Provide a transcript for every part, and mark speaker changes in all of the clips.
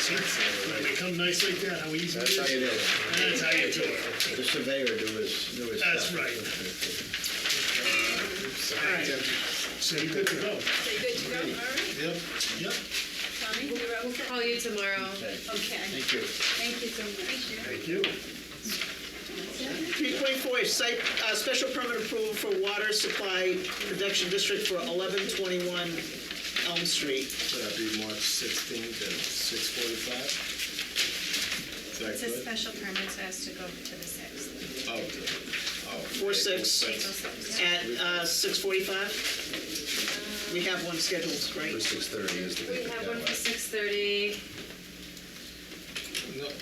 Speaker 1: See, when they come nice like that, how easy it
Speaker 2: That's
Speaker 1: is.
Speaker 2: how you do it.
Speaker 1: That's how you do it.
Speaker 2: The surveyor do his, do his stuff.
Speaker 1: That's right.
Speaker 3: All right.
Speaker 1: So you're good to go.
Speaker 3: So you good to go, all right?
Speaker 1: Yep. Yep.
Speaker 3: Tommy, you're all set?
Speaker 4: Call you tomorrow.
Speaker 3: Okay,
Speaker 2: Thank you.
Speaker 3: thank you so much.
Speaker 1: Thank you.
Speaker 5: 3.4, site, uh, special permit approval for water supply production district for 1121 Elm Street.
Speaker 6: That'd be March 16th at 6:45? Is that
Speaker 7: It's a
Speaker 6: good?
Speaker 7: special permit, so it has to go to the sixth.
Speaker 6: Oh, oh.
Speaker 5: Four six.
Speaker 6: April
Speaker 7: April
Speaker 6: 6th.
Speaker 7: sixth.
Speaker 5: At uh, 6:45? We have one scheduled,
Speaker 2: For
Speaker 5: right?
Speaker 2: 6:30 is the.
Speaker 4: We have one for six thirty.
Speaker 6: No,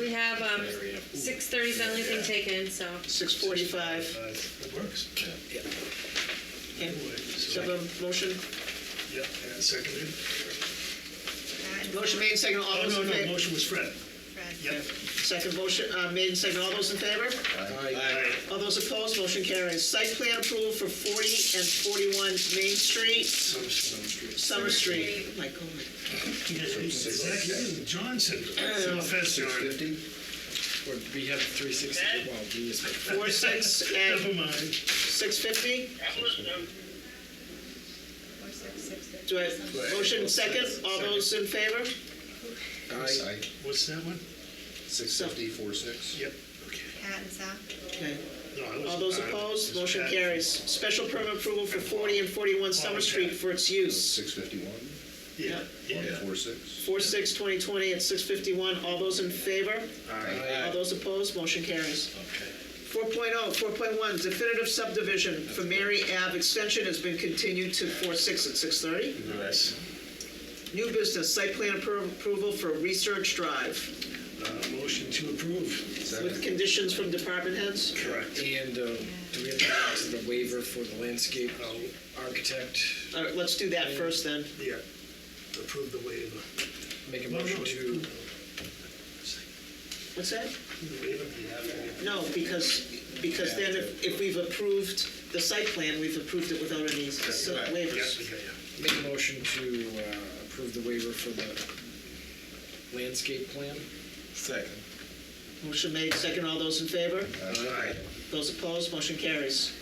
Speaker 4: We have, um, six thirty's the only thing taken, so.
Speaker 5: 6:45.
Speaker 1: It works.
Speaker 5: Okay. So have a motion?
Speaker 1: Yep, and seconded.
Speaker 5: Motion made, second, all
Speaker 1: Oh,
Speaker 5: those
Speaker 1: no,
Speaker 5: in
Speaker 1: no,
Speaker 5: favor?
Speaker 1: motion was Fred.
Speaker 7: Fred.
Speaker 1: Yep.
Speaker 5: Second motion, uh, made and second, all those in favor?
Speaker 1: Aye.
Speaker 5: All those opposed, motion carries. Site plan approval for 40 and 41 Main Street,
Speaker 1: Summer Street.
Speaker 5: Summer Street. My God.
Speaker 1: Is that you, Johnson?
Speaker 5: Yeah.
Speaker 1: Offense, John.
Speaker 2: 50?
Speaker 8: Or we have 360, well, we just have
Speaker 5: Four six
Speaker 1: Never
Speaker 5: at
Speaker 1: mind.
Speaker 5: 6:50?
Speaker 7: Four, six, six, six.
Speaker 5: Do I, motion second, all those in favor?
Speaker 2: Aye.
Speaker 1: What's that one?
Speaker 2: 650, 46?
Speaker 1: Yep.
Speaker 7: Pat and Sal.
Speaker 5: Okay.
Speaker 1: No, I was-
Speaker 5: All those
Speaker 1: I-
Speaker 5: opposed, motion
Speaker 1: Pat.
Speaker 5: carries. Special permit approval for 40 and 41 Summer Street for its use.
Speaker 2: 651,
Speaker 1: Yeah, yeah.
Speaker 2: 146?
Speaker 5: 4/6/2020 at 6:51, all those in favor?
Speaker 2: Aye.
Speaker 5: All those opposed, motion carries. 4.0, 4.1, definitive subdivision for Mary Ave extension has been continued to 4/6 at 6:30.
Speaker 1: Nice.
Speaker 5: New business, site plan appro- approval for Research Drive
Speaker 1: Uh, Motion to approve.
Speaker 5: with conditions from department heads.
Speaker 1: Correct.
Speaker 8: And uh, do we have to ask the waiver for the landscape um, architect?
Speaker 5: All right, let's do that first then.
Speaker 1: Yeah. Approve the waiver.
Speaker 8: Make a motion to,
Speaker 5: What's that?
Speaker 1: The waiver, you have to-
Speaker 5: No, because, because then if, if we've approved the site plan, we've approved it without any s- waivers.
Speaker 1: Yeah, yeah, yeah.
Speaker 8: make a motion to uh, approve the waiver for the landscape plan?
Speaker 6: Second.
Speaker 5: Motion made, second, all those in favor?
Speaker 6: Aye.
Speaker 5: Those opposed, motion carries.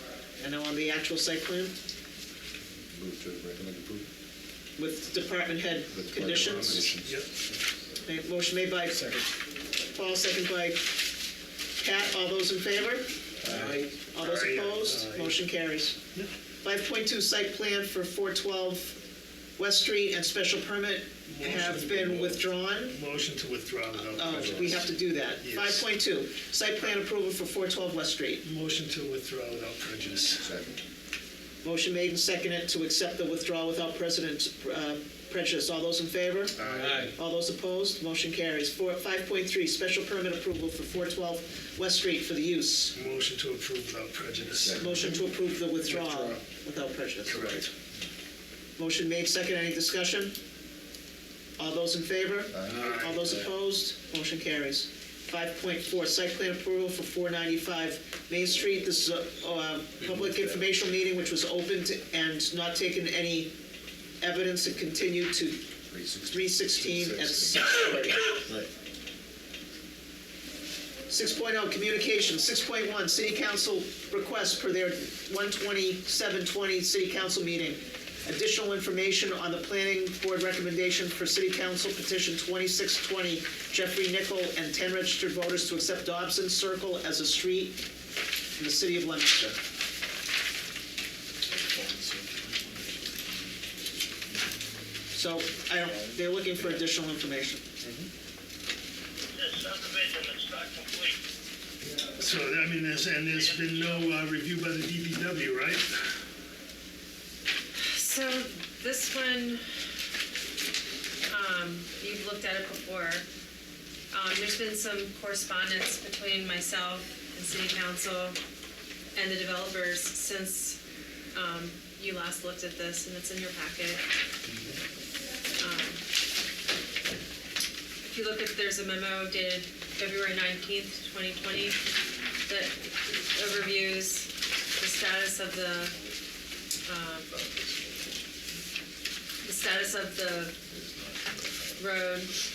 Speaker 5: And now on the actual site plan
Speaker 2: Move to recommend approval.
Speaker 5: with department head
Speaker 2: With
Speaker 5: conditions.
Speaker 2: recommendations.
Speaker 1: Yep.
Speaker 5: Ma- Motion made by
Speaker 8: Second.
Speaker 5: Paul, second by Pat, all those in favor?
Speaker 8: Aye.
Speaker 5: All those
Speaker 1: Aye, aye,
Speaker 5: opposed,
Speaker 1: aye.
Speaker 5: motion carries.
Speaker 1: Yep.
Speaker 5: Five point two, site plan for four twelve West Street and special permit have
Speaker 1: Motion.
Speaker 5: been withdrawn.
Speaker 1: Motion to withdraw without
Speaker 5: Oh,
Speaker 1: prejudice.
Speaker 5: we have to do that.
Speaker 1: Yes.
Speaker 5: Five point two, site plan approval for four twelve West Street.
Speaker 1: Motion to withdraw without prejudice.
Speaker 2: Second.
Speaker 5: Motion made and seconded to accept the withdrawal without precedent, uh, prejudice. All those in favor?
Speaker 8: Aye.
Speaker 5: All those opposed? Motion carries. Four, five point three, special permit approval for four twelve West Street for the use.
Speaker 1: Motion to approve without prejudice.
Speaker 2: Second.
Speaker 5: Motion to approve the withdrawal without prejudice.
Speaker 1: Correct.
Speaker 5: Motion made, second, any discussion? All those in favor?
Speaker 2: Aye.
Speaker 5: All those opposed? Motion carries. 5.4, site plan approval for 495 Main Street. This is a uh, public informational meeting which was opened and not taken any evidence. It continued to
Speaker 2: 360.
Speaker 5: 316 at 6:30. 6.0, oh, communication, 6.1, city council request per their 12720 city council meeting. Additional information on the planning board recommendation for city council petition 2620 Jeffrey Nickel and 10 registered voters to accept Dobson Circle as a street in the city of Leominster. So, I don't, they're looking for additional information.
Speaker 9: This subdivision is not complete.
Speaker 1: So, I mean, there's, and there's been no uh, review by the DPW, right?
Speaker 4: So this one, um, you've looked at it before. Um, there's been some correspondence between myself and city council and the developers since, um, you last looked at this and it's in your packet. Um, If you look at, there's a memo dated February nineteenth, twenty twenty, that overviews the status of the um, the status of the Road